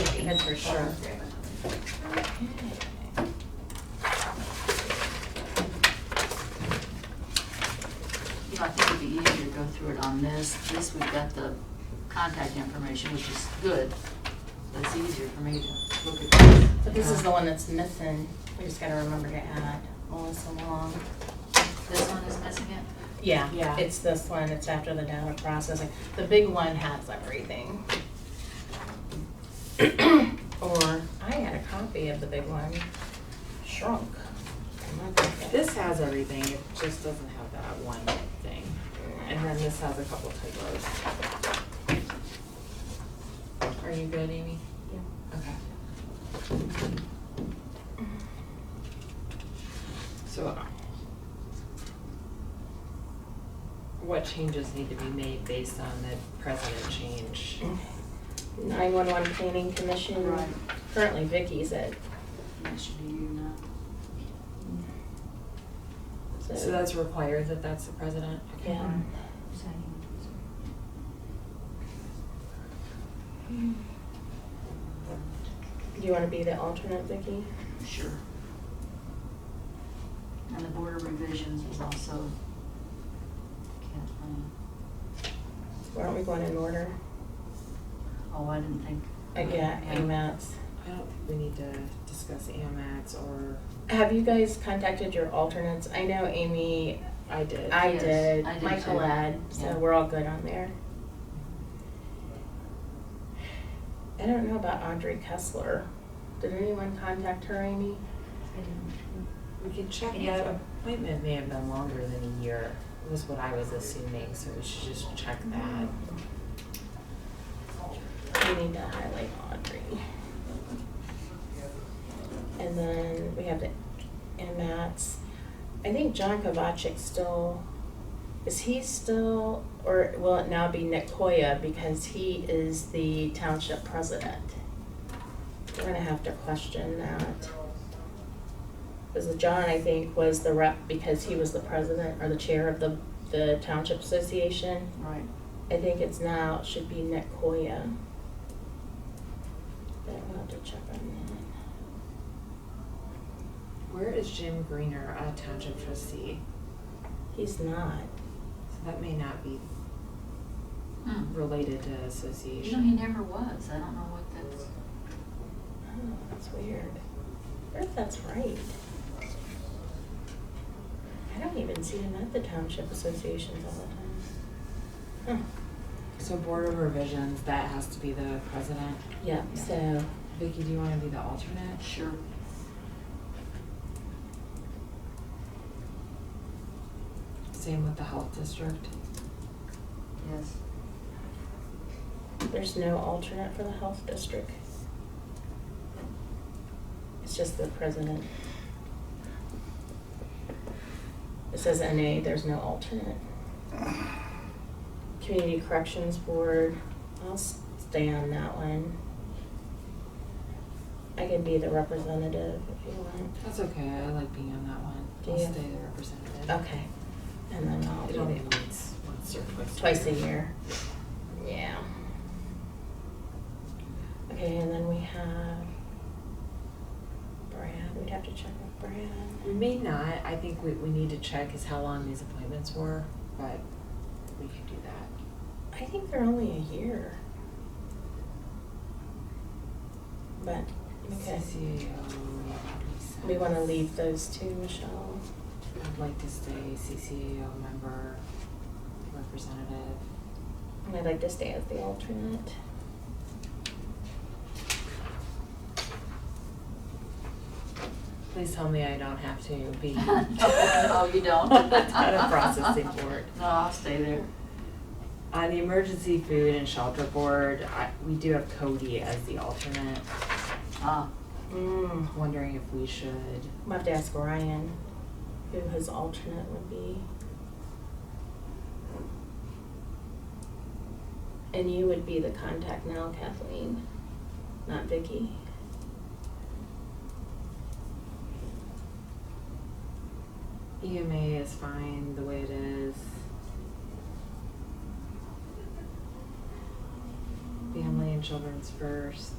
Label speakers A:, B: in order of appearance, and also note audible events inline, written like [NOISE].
A: heads for sure.
B: You know, I think it'd be easier to go through it on this. This, we've got the contact information, which is good. But it's easier for me to look at this.
A: But this is the one that's missing. We just gotta remember to add Melissa Long.
B: This one is missing it?
A: Yeah,
C: Yeah.
A: it's this one. It's after the data processing. The big one has [COUGHS] everything. Or I had a copy of the big one shrunk.
C: This has everything, it just doesn't have that one thing. And then this has a couple typos. Are you good, Amy? Yeah. Okay. So. uh, What changes need to be made based on the president change?
A: Nine-one-one Planning Commission.
B: Right.
A: Currently Vicky's at.
B: That should be you now.
C: So that's required that that's the president? Okay.
A: Yeah. Do you wanna be the alternate, Vicky?
B: Sure. And the board of revisions is also Kathleen.
A: Why don't we go in in order?
B: Oh, I didn't think.
A: Uh, Yeah,
C: Yeah.
A: AMATs.
C: I don't, think we need to discuss AMAX or,
A: Have you guys contacted your alternates? I know Amy,
C: I did.
A: I
B: Yes,
A: did,
B: I did
A: Michael
B: too.
A: had, so
B: Yeah.
A: we're all good on there. I don't know about Audrey Kessler. Did anyone contact her, Amy?
C: We can check,
B: Yeah.
C: the appointment may have been longer than a year, was what I was assuming, so we should just check that.
A: We need to highlight Audrey. And then we have the MATs. I think John Kovacic still, is he still, or will it now be Nicoya because he is the township president? We're gonna have to question that. Because John, I think, was the rep because he was the president or the chair of the, the township association.
B: Right.
A: I think it's now, it should be Netcoya. But I'll have to check on
C: Where is Jim Greener, a township trustee?
A: that. He's not.
C: So that may not be
B: Hmm.
C: related to
B: You know, he
C: association.
B: never was. I don't know what that's.
A: Oh, that's weird. What if that's right? I don't even see him at the township associations all the time.
C: So Board of Revisions, that has to be the president.
A: Huh, yeah, so,
C: Vicky, do you wanna be the alternate?
B: Sure.
C: Same with the Health District.
B: Yes.
A: there's no alternate for the health district. It's just the president. It says NA, there's no alternate. Community Corrections Board, I'll s- stay on that one. I can be the representative if you want.
C: That's okay, I like being on that one.
A: Do
C: I'll
A: you?
C: stay the representative.
A: Okay, and then I'll
C: It
A: be
C: only
A: the
C: meets once or twice.
A: Twice a year. Yeah. Okay, and then we have Brad, we'd have to check with
C: We
A: Brad.
C: may not, I think what we need to check is how long these appointments were, but we could do that.
A: I think they're only a year. But, okay,
C: CCAO, reset.
A: we wanna leave those two, Michelle.
C: I'd like to stay CCAO member, representative.
A: And I'd like to stay as the alternate.
C: Please tell me I don't have to be.
B: [LAUGHS] [LAUGHS] Oh, you [LAUGHS]
C: [LAUGHS]
B: don't?
C: Data processing board.
B: No, I'll stay there.
C: On the emergency food and shelter board, I, we do have Cody as the alternate.
B: Ah,
A: Mm.
C: I'm wondering if we should
A: We'll have to ask Ryan who his alternate would be. And you would be the contact now, Kathleen, not Vicky.
C: EMA E is fine the way it is. Family and children's first.